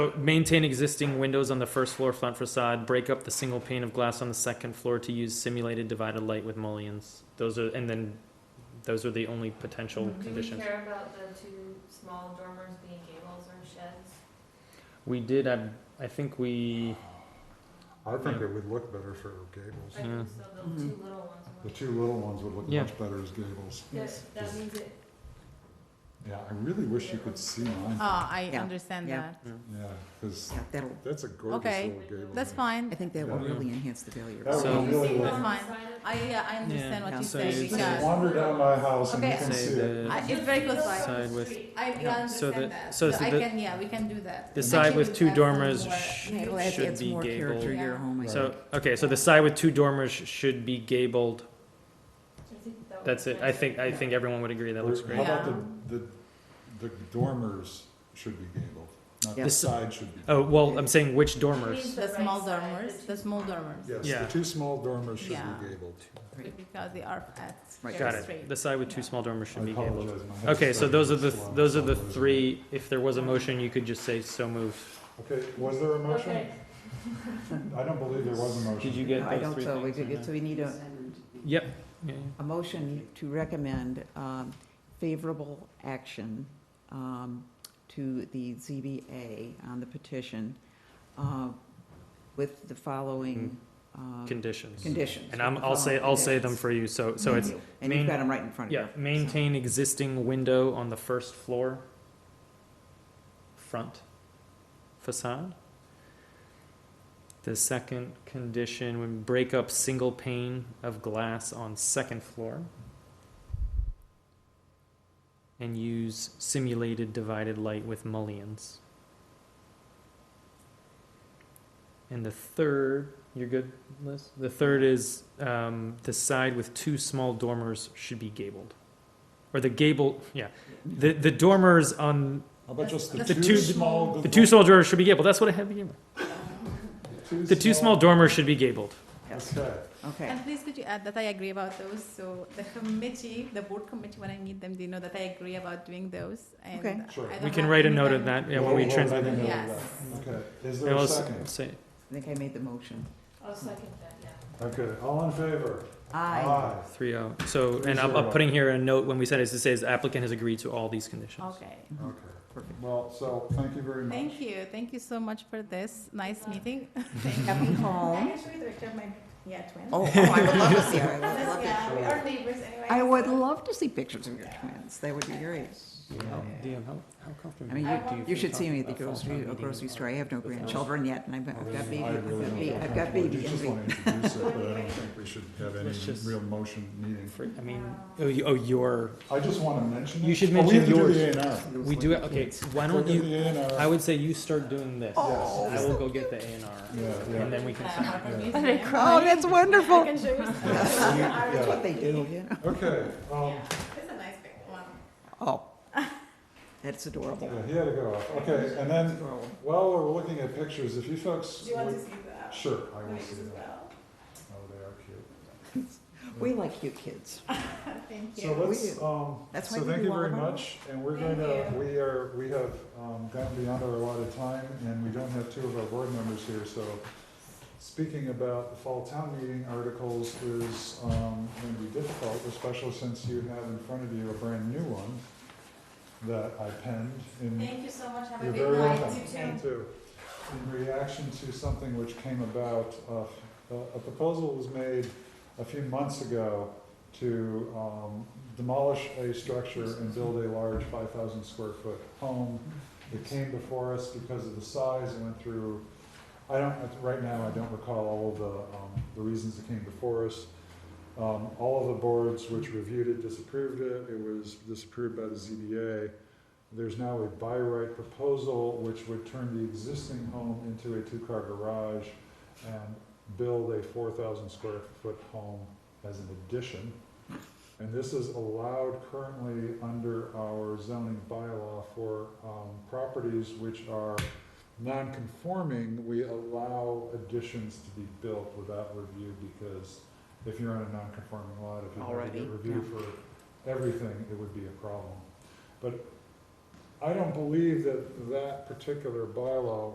Maintain existing windows on the first floor front facade, break up the single pane of glass on the second floor to use simulated divided light with mullions. Those are, and then, those are the only potential Mm-hmm. Do we conditions. care about the two small dormers being gables or sheds? We did, I, I think we, I think Yeah. it would look better for I gables. Yeah. think so, the Mm-hmm. two little ones. The would- two little ones would look Yeah. much better as gables. That, that means it, Yeah, I really wish you could see mine. Ah, I Yeah, understand yeah. that. Yeah, because Yeah, that'll, that's a gorgeous Okay, little gable. That's there. fine. I think that will Yeah. really enhance the value. That So- would really That's look. fine. Side of- I, yeah, I understand what Yeah. you So say you- Just because wander down my house and you Okay. can Say see it. the- I- it's very close by. Side with- I I Yeah. So the- understand that. so So the- I can, yeah, we can do that. the side with two Actually, that's dormers somewhere- sh- It'll add, Should adds be more character to gabled. your home. I so, think. okay, so the side with two dormers should be gabled. I think that would That's be it. I nice. think, I think everyone would agree. That looks Or great. How about Yeah. the, the, the dormers should be gabled, not Yeah. the side should be. Oh, well, I'm saying which Means dormers? The right small side, dormers, the the small dormers, Yes, Yeah. the two small dormers should Yeah. be gabled. because they are at Right. Got very it. straight. The side with two small dormers should I be gabled. apologize, my head's Okay, so starting those are to the, swell those are for the some reason. three, if there was a motion, you could just say so moved. Okay, was there a motion? Okay. I don't believe there was a motion. Did you get I those don't, three so we things? could, get- so we need a, Yep. Yeah, a motion to recommend, um, favorable action, um, to the ZBA on the petition, uh, with the following, uh, yeah. Hmm. Conditions. conditions. And I'm, I'll say, I'll say them for you, so, so it's, And you've main- got them right in front of you. yeah, maintain existing window on the first floor front facade. The second condition would break up single pane of glass on second floor. And use simulated divided light with mullions. And the third, you're good, Liz? The third is, um, the side with two small dormers should be gabled. Or the gable, yeah, the, the dormers on, How about just the The two two- small? the two small dormers should be gabled, that's what I have here. The two small dormers should be gabled. Yes, Okay, okay. And please could you add that I agree about those, so the committee, the board committee, when I meet them, they know that I agree about doing those and. Okay. I Sure. don't We can have write a any note time- of that, yeah, when we We'll- we'll trans. write a note of Yes. okay. Is Yeah, there we'll a s- second? say- I think I made the motion. I'll second that, yeah. Okay, all in favor? Aye. Three oh, so, Three and I'm, I'm zero. putting here a note when we send it, it says applicant has agreed to all these conditions. Okay. Okay, well, so, thank you very much. Thank you. Thank you so much for this. Nice meeting. Happy I home. can show you the picture of my, yeah, twin. Oh, oh, I would love to see her. I would love to- Yeah, we are neighbors anyway. I would so- love to see pictures of your twins. That would be great. DM, how, how I comfortable? mean, I you, want- you should see me at the grocery, uh, grocery store. I have no grandchildren yet, and I've I got I've got really- baby, I really I've don't got baby, feel comfortable. I've got baby You just want to introduce it, envy. but I don't think we should have any Let's just- real motion needing. For- I mean, oh, you, oh, your, I just want to mention it. You should Oh, mention We have to do the A and we do, it- okay, why R. don't We'll do you, the A and R. I would say you start doing this. Oh, I will go get the A and Yeah, R, yeah. and then we can. Yeah, sign. I'm Yeah. using it. Oh, that's I wonderful. can show you. That's what they do, you know? Okay, um, Yeah, It's a nice big one. Oh, that's adorable. yeah, he had to go off. Okay, and then, while we're looking at pictures, if you folks. Do you want to would- see that? Sure, I will Nice see as that. well. Oh, they are cute. We like cute kids. Thank So you. let's, um, That's so why we thank do you all very of our- much, and we're Thank gonna, you. we are, we have, um, gotten beyond our allotted time, and we don't have two of our board members here, so speaking about the fall town meeting articles is, um, gonna be difficult, especially since you have in front of you a brand new one that I penned in, Thank you so much. Have a you're great very night. welcome. too. In reaction to something which came about, uh, a- a proposal was made a few months ago to um, demolish a structure and build a large 5,000 square foot home. Mm-hmm. It came before us because of the size, it went through, I don't, right now, I don't recall all of the, um, the reasons it came before us. Um, All of the boards which reviewed it disapproved it, it was disapproved by the ZBA. There's now a by right proposal which would turn the existing home into a two-car garage and build a 4,000 square foot home as an addition. And this is allowed currently under our zoning bylaw for um, properties which are non-conforming, we allow additions to be built without review because if you're on a non-conforming lot, if you had to Already, get review for everything, it would be a problem. But I don't believe that that particular bylaw